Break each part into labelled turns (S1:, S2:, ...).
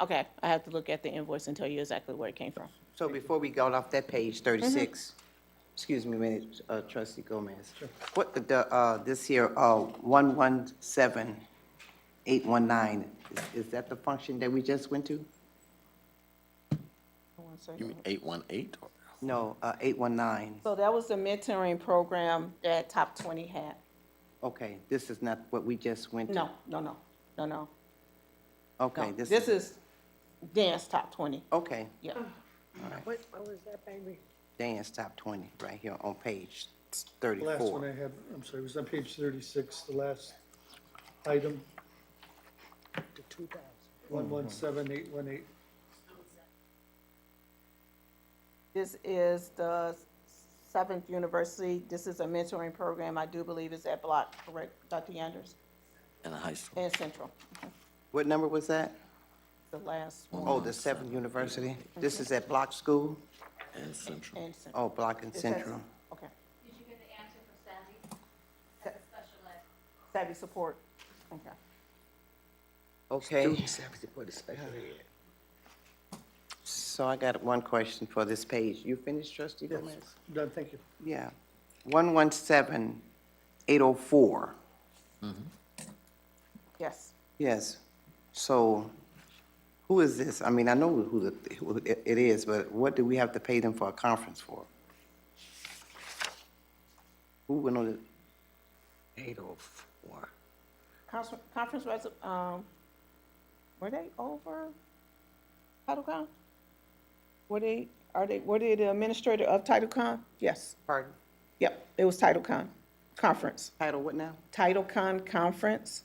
S1: Okay, I have to look at the invoice and tell you exactly where it came from.
S2: So before we go off that
S1: Mm-hmm.
S2: page, thirty-six, excuse me a minute, uh, trustee Gomez. What, the, uh, this here, uh, one-one-seven-eight-one-nine, is, is that the function that we just went to?
S3: You mean eight one eight?
S2: No, uh, eight-one-nine,
S1: So that was the mentoring program that Top 20 had.
S2: okay, this is not what we just went to?
S1: No, no, no, no, no.
S2: Okay,
S1: no. This is dance Top 20,
S2: Okay,
S1: yeah.
S4: What, what was that, baby?
S2: dance top twenty, right here on page
S5: The Last one I
S2: thirty-four.
S5: had, I'm sorry, it was on page thirty-six, the last item,
S4: The two thousand.
S5: one-one-seven-eight-one-eight.
S1: This is the Seventh University, this is a mentoring program, I do believe is at Block, correct, Dr. Yanders?
S3: In a high school.
S1: And Central,
S2: What number was that?
S1: the last one,
S2: Oh, the Seventh University? This is at Block School?
S3: And central.
S1: and Central.
S2: Oh, Block and
S1: Is that-
S2: Central.
S1: Okay,
S6: Did you get the answer for Sandy? That's a special ed.
S1: savvy support, okay.
S2: Okay. So I got one question for this page. You finished, trustee Gomez?
S5: Done, thank you.
S2: Yeah. One-one-seven, oh eight-oh-four.
S1: Yes,
S2: Yes. So who is this? I mean, I know who the, who it it is, but what do we have to pay them for a conference for? Who went on the,
S7: Eight oh four.
S1: conference, conference res, um, were they over TitleCon? Were they, are they, were they the administrator of TitleCon? Yes,
S2: pardon,
S1: yep, it was TitleCon, conference,
S2: title what now?
S1: TitleCon conference.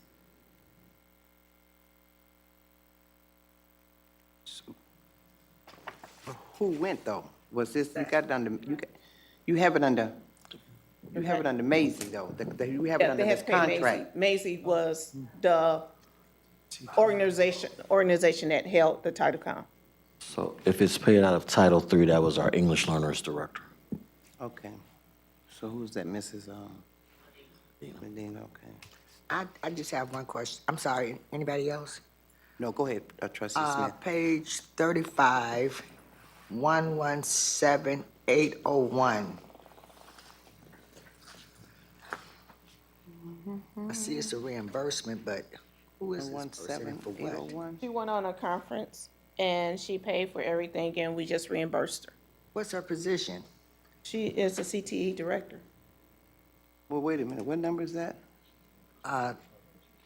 S2: Who went though? Was this, you got it under, you, got- you have it under, you have it under Maisie though, the- the- you have it
S1: Yeah,
S2: under
S1: they
S2: this
S1: had to pay Macy.
S2: contract.
S1: Macy was the organization, organization that held the TitleCon.
S3: So if it's paid out of Title III, that was our English learners director.
S2: Okay. So who's that, Mrs. Um? Medina, okay.
S7: I, I just have one question. I'm sorry, anybody else?
S2: No, go ahead, uh, trustee
S7: Uh,
S2: Smith.
S7: page thirty-five, oh one-one-seven-eight-oh-one. I see it's a reimbursement, but who is this person and for what?
S2: 117-801?
S1: She went on a conference and she paid for everything and we just reimbursed her.
S7: What's her position?
S1: She is the CTE director.
S2: Well, wait a minute, what number is that?
S7: Uh,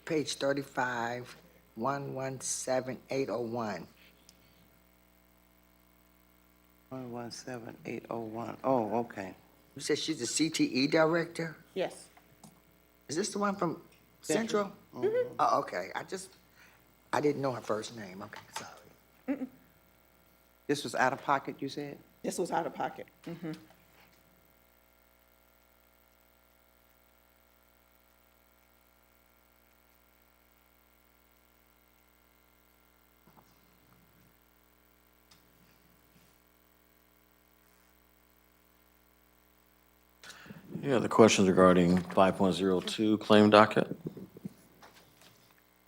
S7: page thirty-five, one-one-seven-eight-oh-one.
S2: One one seven eight oh one. Oh, okay.
S7: You said she's the CTE E director?
S1: Yes.
S7: Is this the one from Central? Oh, okay, I just, I didn't know her first name, okay, sorry.
S2: This was out of pocket, you said?
S1: This was out of pocket. Mhm.
S3: Any other questions regarding 5.02 claim docket?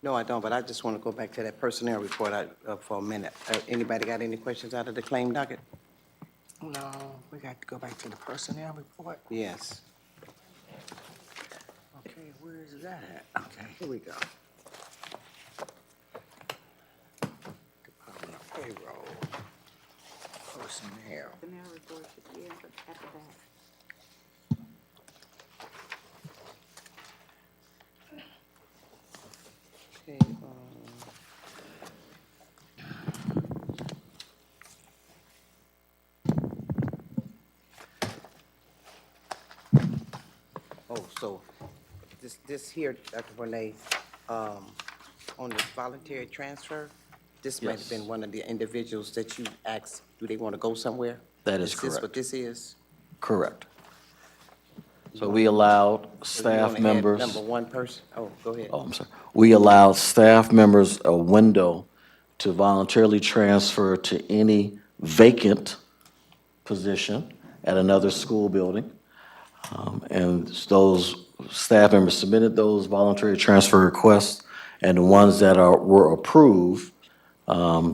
S2: No, I don't, but I just want to go back to that personnel report I- uh, for a minute. Uh, Anybody got any questions out of the claim docket?
S7: No, we got to go back to the personnel report.
S2: Yes.
S7: Okay, where is that at? Okay, here we go. Department of Payroll, personnel.
S2: Okay, um, Oh, so this, this here, Dr. Bonet, um, on the voluntary transfer, this might have been
S3: Yes.
S2: one of the individuals that you asked, do they want to go somewhere?
S3: That is
S2: Is this what
S3: correct.
S2: this is?
S3: Correct. So we
S2: So
S3: allowed
S2: you wanna
S3: staff
S2: add
S3: members.
S2: Number one person? Oh, go ahead.
S3: oh, I'm sorry, we allow staff members a window to voluntarily transfer to any vacant position at another school building. Um, And those staff members submitted those voluntary transfer requests, and the ones that are, were approved, um,